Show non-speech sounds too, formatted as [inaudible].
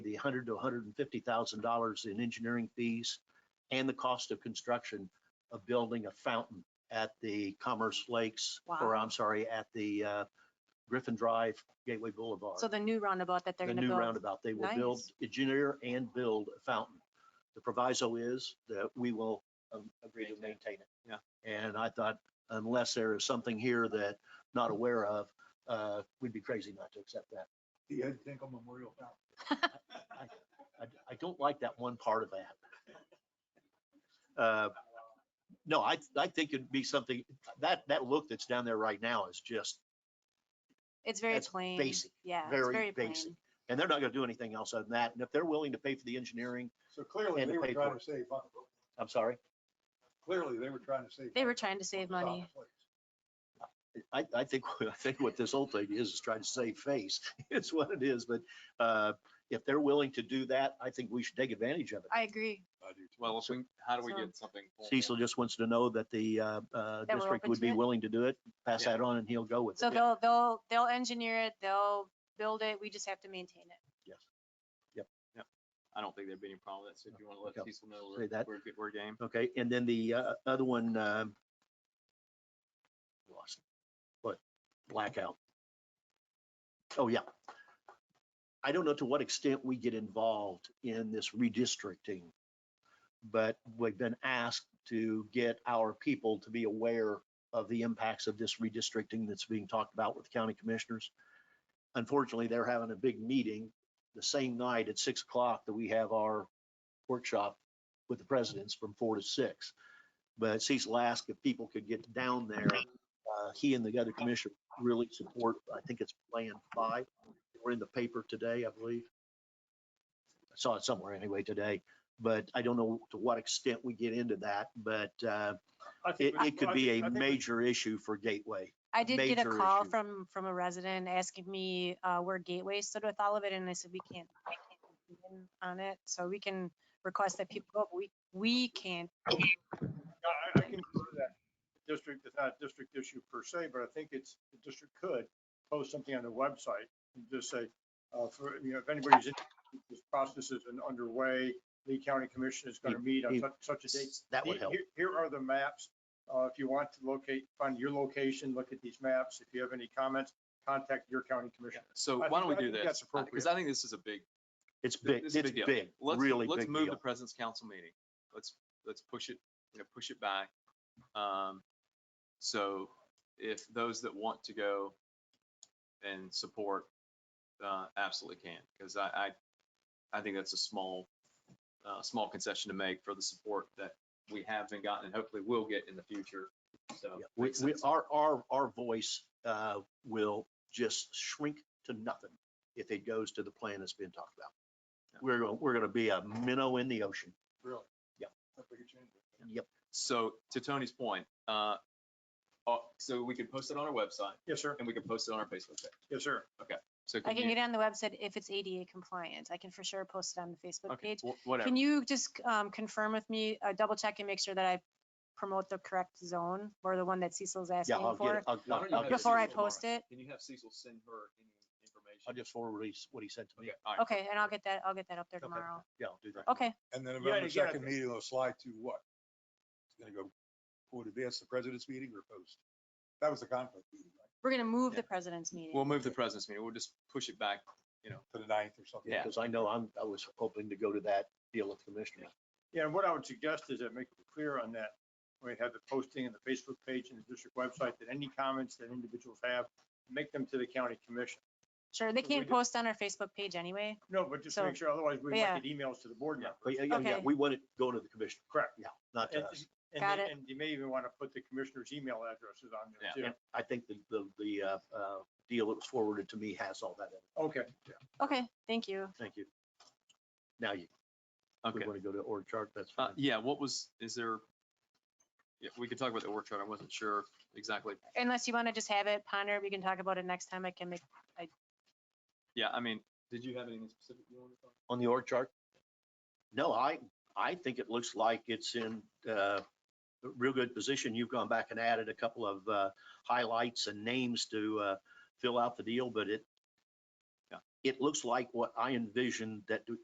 hundred to hundred and fifty thousand dollars in engineering fees and the cost of construction of building a fountain at the Commerce Lakes, or Wow. I'm sorry, at the uh, Griffin Drive Gateway Boulevard. So the new roundabout that they're The gonna new build. roundabout, they will build, engineer and build a fountain. The proviso is that we will um, agree to maintain it. Yeah. And I thought unless there is something here that not aware of, uh, we'd be crazy not to accept that. The Ed Tinkle Memorial Fountain. I, I don't like that one part of that. Uh, No, I, I think it'd be something, that, that look that's down there right now is just, It's very that's plain. basic, Yeah, it's very very plain. basic. and they're not gonna do anything else other than that. And if they're willing to pay for the engineering, So clearly, And the they were trying paperwork. to save money. I'm sorry, Clearly, they were trying to save. They were money. trying to save money. I, I think, [laughs] I think what this whole thing is, is trying to save face. [laughs] It's what it is, but uh, if they're willing to do that, I think we should take advantage of it. I agree. I do too. Well, if we, how do we So- get something? formal? Cecil just wants to know that the uh, uh, we're district open would to be it? willing to do it, pass Yeah. that on and he'll go with it. So they'll, they'll, they'll engineer it, they'll build it, we just have to maintain it. I don't think there'd be any problem with that. So if you want to let Okay. Cecil know Say we're, that. we're, good- we're game. Okay, and then the uh, other one, um, lost, it. what, blackout. Oh, yeah. I don't know to what extent we get involved in this redistricting, but we've been asked to get our people to be aware of the impacts of this redistricting that's being talked about with county commissioners. Unfortunately, they're having a big meeting the same night at six o'clock that we have our workshop with the presidents from four to six. But Cecil asked if people could get down there. Uh, He and the other commissioner really support, I think it's Plan Five. We're in the paper today, I believe. I saw it somewhere anyway today, but I don't know to what extent we get into that, but uh, I think it, we- it could I be think- a I think we- major issue for Gateway. I did get a Major call issue. from, from a resident asking me, uh, where Gateway stood with all of it, and I said, we can't, I can't weigh in on it, so we can request that people go, but we, we can't. I, I can go to that district, it's not a district issue per se, but I think it's, the district could post something on their website and just say, uh, for, you know, if anybody's, in- this process is an- underway, Lee County Commission is gonna meet on he- such, such a date. That would Here- help. here- Here are the maps. Uh, if you want to locate, find your location, look at these maps. If you have any comments, contact your county commissioner. So I why think- don't we I do think that's this? Because I think this is a big, It's th- big, this it's is a big deal. big, let's, really let's big move the deal. president's council meeting. Let's, let's push it, you know, push it back. Um, so if those that want to go and support, uh, absolutely can, because I, I, I think that's a small, uh, small concession to make for the support that we have been gotten and hopefully will get in the future. So. Yeah, We, makes we, sense. our, our, our voice, uh, will just shrink to nothing if it goes to the plan that's been talked about. We're, gonna- we're gonna be a minnow in the ocean. Really? Yeah. That's what you changed it. Yep, So to Tony's point, uh, uh, so we could post it on our website Yes, sir. and we could post it on our Facebook page. Yes, sir. So I could can you, get it on the website if it's ADA compliant, I can for sure post it on the Facebook okay, page. wh- whatever. Can you just um, confirm with me, uh, double check and make sure that I promote the correct zone or the one that Cecil's yeah, asking I'll get for it. I'll- Why don't I'll- you I'll have get it. before I Cecil tomorrow. post it? Can you have Cecil send her any information? I'll just forward what he, s- what he said to me. Okay, all right. Okay, and I'll get that, I'll get that up there Okay. tomorrow. Yeah, I'll do that. Okay, And then Yeah, November you got second it. meeting will slide to what? It's gonna go forward advance the president's meeting or post? That was the conflict meeting, right? we're gonna move Yeah. the president's meeting. We'll move the president's meeting. We'll just push it back. To the ninth or something. Yeah. Because I know I'm, I was hoping to go to that deal with commissioners. Yeah, and what I would suggest is that make it clear on that, we have the posting and the Facebook page and the district website, that any comments that individuals have, make them to the county commission. Sure, they So we can't do- post on our Facebook page anyway. No, but just to make sure, otherwise we Yeah. might get emails to the board Yeah, members. but yeah, yeah, yeah, Okay. we want it going to the commission, Correct. not to And- us. and Got they- it. And you may even want to put the commissioner's email addresses on there Yeah. too. And I think the, the, the, uh, uh, deal that was forwarded to me has all that in it. Okay. Okay, thank you. Thank you. Now you, we Okay. want to go to org chart, that's Uh, fine. yeah, what was, is there? Yeah, we could talk about the work chart. I wasn't sure exactly. Unless you wanna just have it ponder, we can talk about it next time. I can make, Yeah, I mean, did you have anything specific you wanted to talk? on the org chart? No, I, I think it looks like it's in uh, a real good position. You've gone back and added a couple of uh, highlights and names to uh, fill out the deal, but it, Yeah. it looks like what I envisioned that